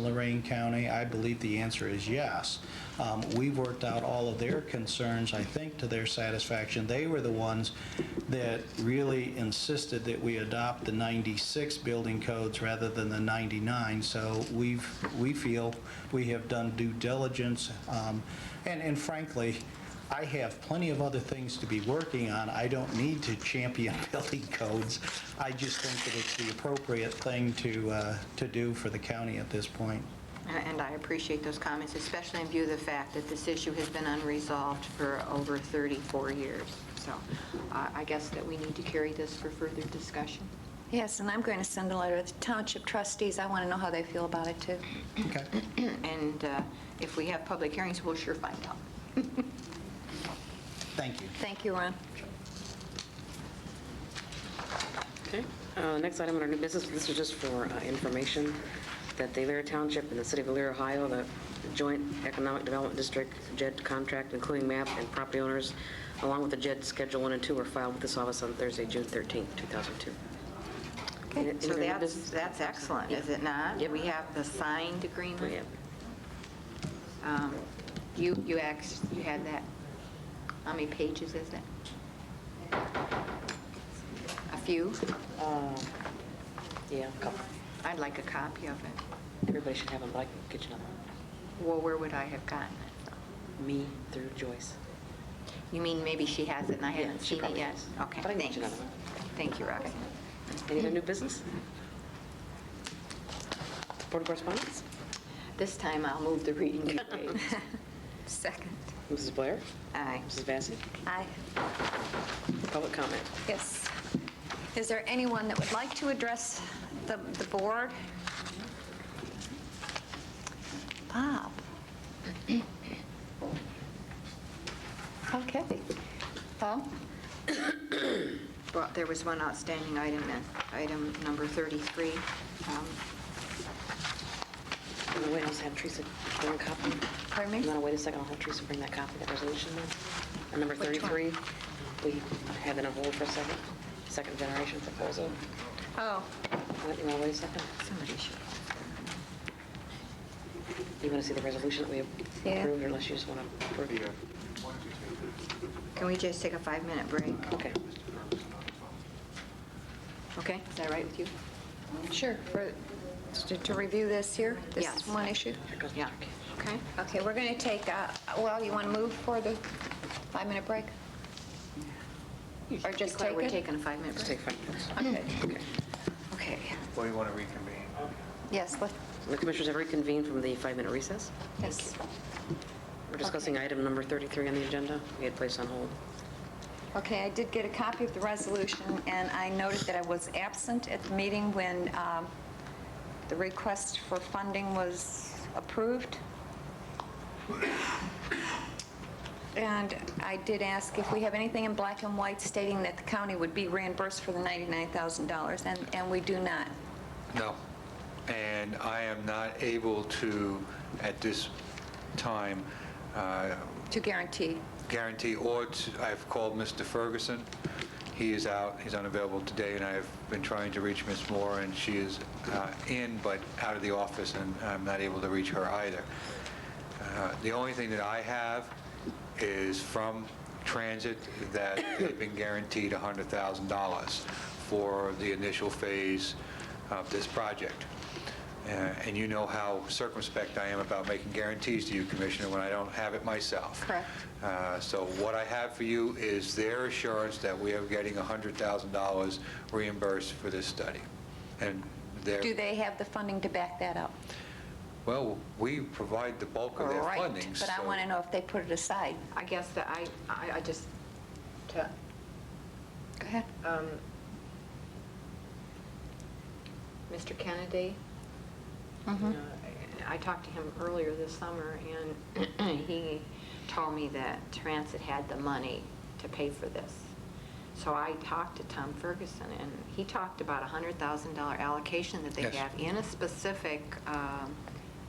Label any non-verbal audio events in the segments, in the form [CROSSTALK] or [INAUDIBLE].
Lorraine County? I believe the answer is yes. Um, We've worked out all of their concerns, I think, to their satisfaction. They were the ones that really insisted that we adopt the 96 building codes rather than the 99. So we've, we feel we have done due diligence. um, And and frankly, I have plenty of other things to be working on. I don't need to champion [LAUGHS] building codes. I just think that it's the appropriate thing to, uh, to do for the county at this point. And I appreciate those comments, especially in view of the fact that this issue has been unresolved for over 34 years. So uh, I guess that we need to carry this for further discussion. Yes, and I'm going to send a letter to the township trustees. I want to know how they feel about it, too. Okay. And uh, if we have public hearings, we'll sure find out. Thank you. Thank you, Ron. Okay, uh, next item on our new business, this is just for uh, information, that the Elyria Township and the City of Elyria, Ohio, the Joint Economic Development District JED contract, including map and property owners, along with the JED Schedule 1 and 2, were filed with this office on Thursday, June 13, 2002. Any- any So other new that's, business? that's excellent, is it not? Yep. We have the signed agreement. Yep. Um, You, you asked, you had that. How many pages is that? A few? Uh, Yeah, couple. I'd like a copy of it. everybody should have them, but I can get you another Well, where would I have gotten it? though? one. Me through Joyce. You mean maybe she has it and I Yeah, haven't she seen it probably yet? has. Okay, But I can get thanks. you another one. Thank you, Roxanne. Any other new business? Board of correspondence? This time I'll move the [LAUGHS] reading to page. Second. Mrs. Blair? Aye. Mrs. Vacy? Aye. Public comment? Yes. Is there anyone that would like to address the the board? Bob? Okay. Paul? Well, there was one outstanding item, and item number 33. Um, I'm gonna wait, I'll just have Teresa bring a copy. Pardon me? I'm gonna wait a second, I'll have Teresa bring that copy, that resolution then. And number Which one? 33, we had that on hold for a second, second generation proposal. Oh, Wait, You wanna wait a second? Somebody should. You wanna see the resolution that we Yeah. approved, or unless you just wanna approve your... Can we just take a five-minute break? Okay. Okay, is that right with you? sure. For- to- To review this here? Yes. This one issue? Here goes Yeah. Mr. Kay. Okay. Okay, we're going to take, uh, well, you want to move for the five-minute break? Or just Declare take we're it? taking a five-minute Just break. take five minutes. Okay. Okay. Okay, Well, you want to reconvene? yes, let- The commissioners have reconvened from the five-minute recess. yes, We're discussing item number 33 on the agenda, we had placed on hold. okay, I did get a copy of the resolution, and I noted that I was absent at the meeting when um, the request for funding was approved. And I did ask if we have anything in black and white stating that the county would be reimbursed for the $99,000, and and we do not. No. And I am not able to, at this time, uh, To guarantee. guarantee, or to- I've called Mr. Ferguson. He is out, he's unavailable today, and I've been trying to reach Ms. Moore, and she is uh, in but out of the office, and I'm not able to reach her either. Uh, The only thing that I have is from Transit that they've been guaranteed $100,000 for the initial phase of this project. Uh, And you know how circumspect I am about making guarantees to you, Commissioner, when I don't have it myself. Correct. Uh, So what I have for you is their assurance that we are getting $100,000 reimbursed for this study. And they're... Do they have the funding to back that up? Well, we provide the bulk of their Right, funding, but I so- want to know if they put it aside. I guess that I, I I just, to, Go ahead. um, Mr. Kennedy, Uh, Mhm. I talked to him earlier this summer, and [CLEARS THROAT] he told me that Transit had the money to pay for this. So I talked to Tom Ferguson, and he talked about a $100,000 allocation that they Yes. have in a specific, um,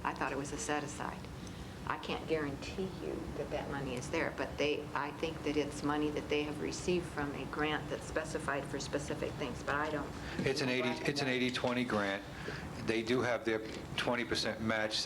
I thought it was a set-aside. I can't guarantee you that that money is there, but they, I think that it's money that they have received from a grant that's specified for specific things, but I don't. It's an 80, it's an 80-20 grant. They do have their 20% match